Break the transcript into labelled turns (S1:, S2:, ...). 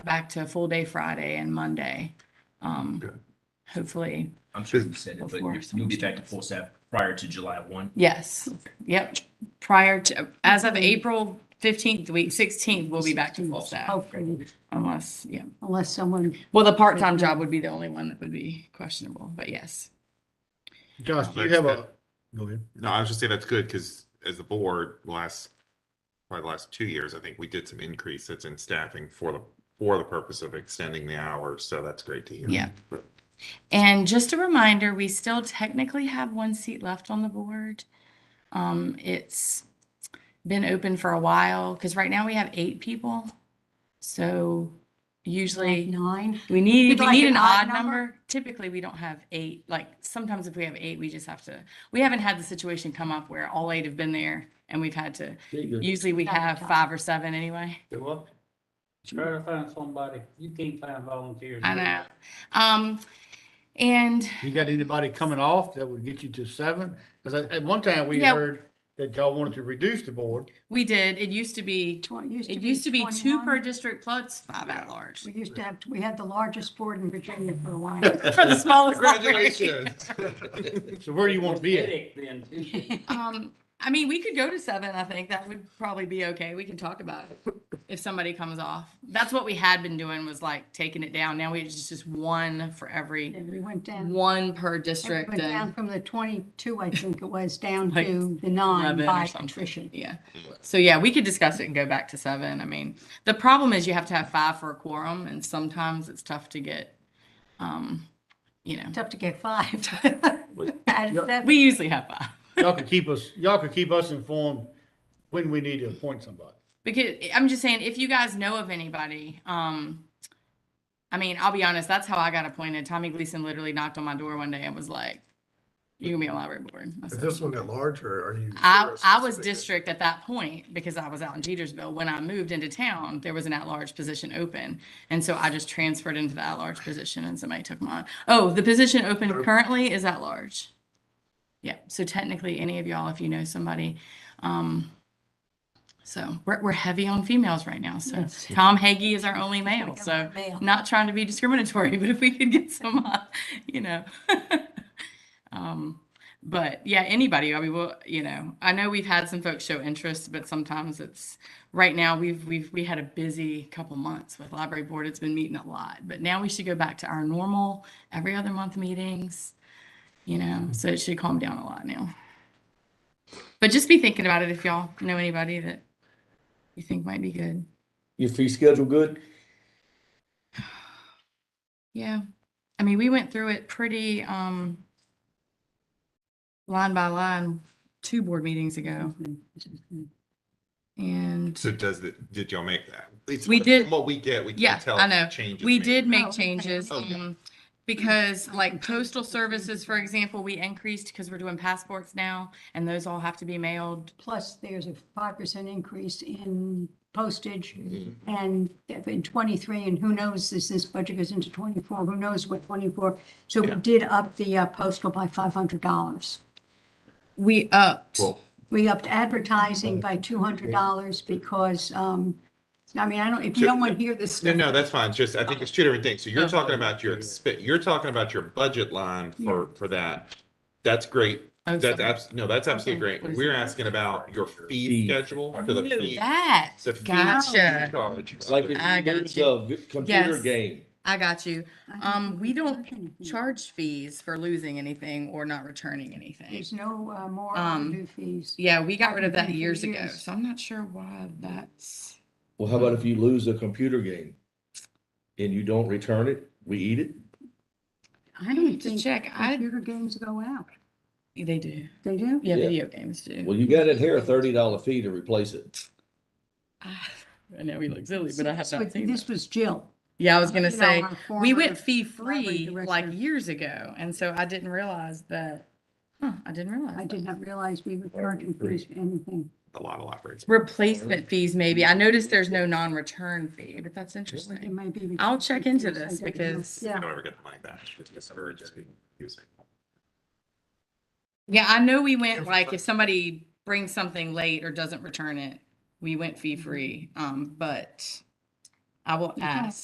S1: back to full day Friday and Monday. Um,
S2: Okay.
S1: hopefully,
S3: I'm sure you said it, but
S1: Before
S3: you- you'll be back to full staff prior to July one.
S1: yes, yep. Prior to, as of April fifteenth, week sixteenth, we'll be back to full staff
S4: Hopefully,
S1: unless, yeah.
S4: Oh, unless someone,
S1: Well, the part-time job would be the only one that would be questionable, but yes.
S5: Josh, do you
S2: That's
S5: have a, go ahead.
S2: No, I was just saying that's good because as the board, last, probably the last two years, I think we did some increases in staffing for the, for the purpose of extending the hours. So that's great to hear.
S1: Yeah. And just a reminder, we still technically have one seat left on the board. Um, it's been open for a while, because right now we have eight people. So usually
S4: nine,
S1: we need,
S4: You'd
S1: we
S4: like
S1: need
S4: an
S1: an
S4: odd
S1: odd
S4: number?
S1: number. Typically, we don't have eight, like sometimes if we have eight, we just have to, we haven't had the situation come up where all eight have been there and we've had to, usually we have five or seven anyway.
S6: Well, try to find somebody. You can't find volunteers.
S1: I know. Um, and
S5: You got anybody coming off that would get you to seven? Because at one time we
S1: Yeah.
S5: heard that y'all wanted to reduce the board.
S1: we did, it used to be
S4: tw- used to be.
S1: It used to be two
S4: 21.
S1: per district plus five at large.
S4: We used to have, we had the largest board in Virginia for a while.
S1: For the smallest.
S2: Congratulations.
S5: So where do you want to be at?
S6: Pathetic Then, too.
S1: Um, I mean, we could go to seven, I think. That would probably be okay. We can talk about it if somebody comes off. That's what we had been doing was like taking it down. Now we it's just one for every,
S4: And we went down,
S1: one per
S4: we went
S1: district
S4: down
S1: and
S4: from the twenty-two, I think it was, down
S1: Like
S4: to the nine
S1: eleven
S4: by
S1: or something.
S4: attrition.
S1: Yeah. So yeah, we could discuss it and go back to seven. I mean, the problem is you have to have five for a quorum and sometimes it's tough to get, um, you know,
S4: Tough to get five. Out of seven.
S1: we usually have five.
S5: Y'all could keep us, y'all could keep us informed when we need to appoint somebody.
S1: because I'm just saying, if you guys know of anybody, um, I mean, I'll be honest, that's how I got appointed. Tommy Gleason literally knocked on my door one day and was like, "You can be on library board." I
S7: Is
S1: said,
S7: this one at large or are you?
S1: I, I was district at that point because I was out in Jetersville. When I moved into town, there was an at-large position open. And so I just transferred into the at-large position and somebody took mine. Oh, the position open currently is at-large. Yeah, so technically, any of y'all, if you know somebody, um, so we're, we're heavy on females right now. So
S4: Yes.
S1: Tom Hagee is our only male.
S4: Got
S1: So
S4: mail.
S1: not trying to be discriminatory, but if we could get some, uh, you know. um, but yeah, anybody. I mean, well, you know, I know we've had some folks show interest, but sometimes it's right now we've we've we had a busy couple months with library board. It's been meeting a lot, but now we should go back to our normal every other month meetings. You know, so it should calm down a lot now. But just be thinking about it if y'all know anybody that you think might be good.
S8: Your fee schedule good?
S1: Yeah, I mean, we went through it pretty, um, line by line, two board meetings ago, and
S2: So does it, did y'all make that? At least
S1: We
S2: from
S1: did-
S2: What we get, we
S1: Yeah,
S2: can tell.
S1: I
S2: if
S1: know.
S2: Changes.
S1: we
S2: made.
S1: did
S4: Oh,
S1: make
S4: okay.
S1: changes,
S2: Oh, yeah.
S1: um, because like postal services, for example, we increased because we're doing passports now, and those all have to be mailed.
S4: Plus, there's a five percent increase in postage
S2: Mm-hmm.
S4: and in twenty-three, and who knows, as this budget goes into twenty-four, who knows what twenty-four. So we did up the uh, postal by five hundred dollars.
S1: We upped.
S2: Well,
S4: We upped advertising by
S2: Mm-hmm.
S4: two hundred dollars because, um, I mean, I don't, if you don't want to hear this
S2: No,
S4: stuff.
S2: no, that's fine. Just, I think it's two different things. So you're
S1: Okay.
S2: talking about your, expe- you're talking about your budget line for, for that. That's great.
S1: Oh,
S2: That's
S1: sorry.
S2: abs, no, that's absolutely
S1: Okay.
S2: great. We're asking about your fee
S8: Fee.
S2: schedule for the
S1: Ooh,
S2: fee.
S1: That,
S2: The fee
S1: Gotcha.
S2: charge.
S8: It's like if
S1: I
S8: you
S1: got
S8: lose
S1: you.
S8: a vi- computer
S1: Yes.
S8: game.
S1: I got you.
S4: I don't
S1: Um,
S4: think
S1: we don't
S4: charge anything.
S1: charge fees for losing anything or not returning anything.
S4: There's no uh, more
S1: Um,
S4: new fees.
S1: Yeah, we got rid of
S4: Hasn't
S1: that
S4: been for
S1: years ago,
S4: years.
S1: so I'm not sure why that's.
S8: Well, how about if you lose a computer game and you don't return it, we eat it?
S1: I need to check. I,
S4: Computer games go out.
S1: they do.
S4: They do?
S1: Yeah,
S8: Yeah.
S1: video games do.
S8: Well, you gotta adhere a thirty dollar fee to replace it.
S1: Ah, I know we look silly, but I have
S4: So
S1: not seen
S4: This
S1: that.
S4: was Jill.
S1: Yeah, I was gonna
S4: you know,
S1: say,
S4: our
S1: we
S4: former
S1: went fee
S4: library
S1: free like
S4: director.
S1: years ago, and so I didn't realize that. Huh, I didn't realize.
S4: I
S1: that.
S4: did not realize we were charging fees for anything.
S2: A lot of operates.
S1: Replacement fees, maybe. I noticed there's no non-return fee, but that's
S4: It
S1: interesting.
S4: may be.
S1: I'll check into
S4: because I
S1: this
S4: don't know.
S1: because-
S2: I
S4: Yeah,
S2: don't ever get the money back. It's discouraged.
S1: Yeah, I know we went like, if somebody brings something late or Mm-hmm. doesn't return it, we went fee free, um, but I will
S4: Yeah.
S1: ask.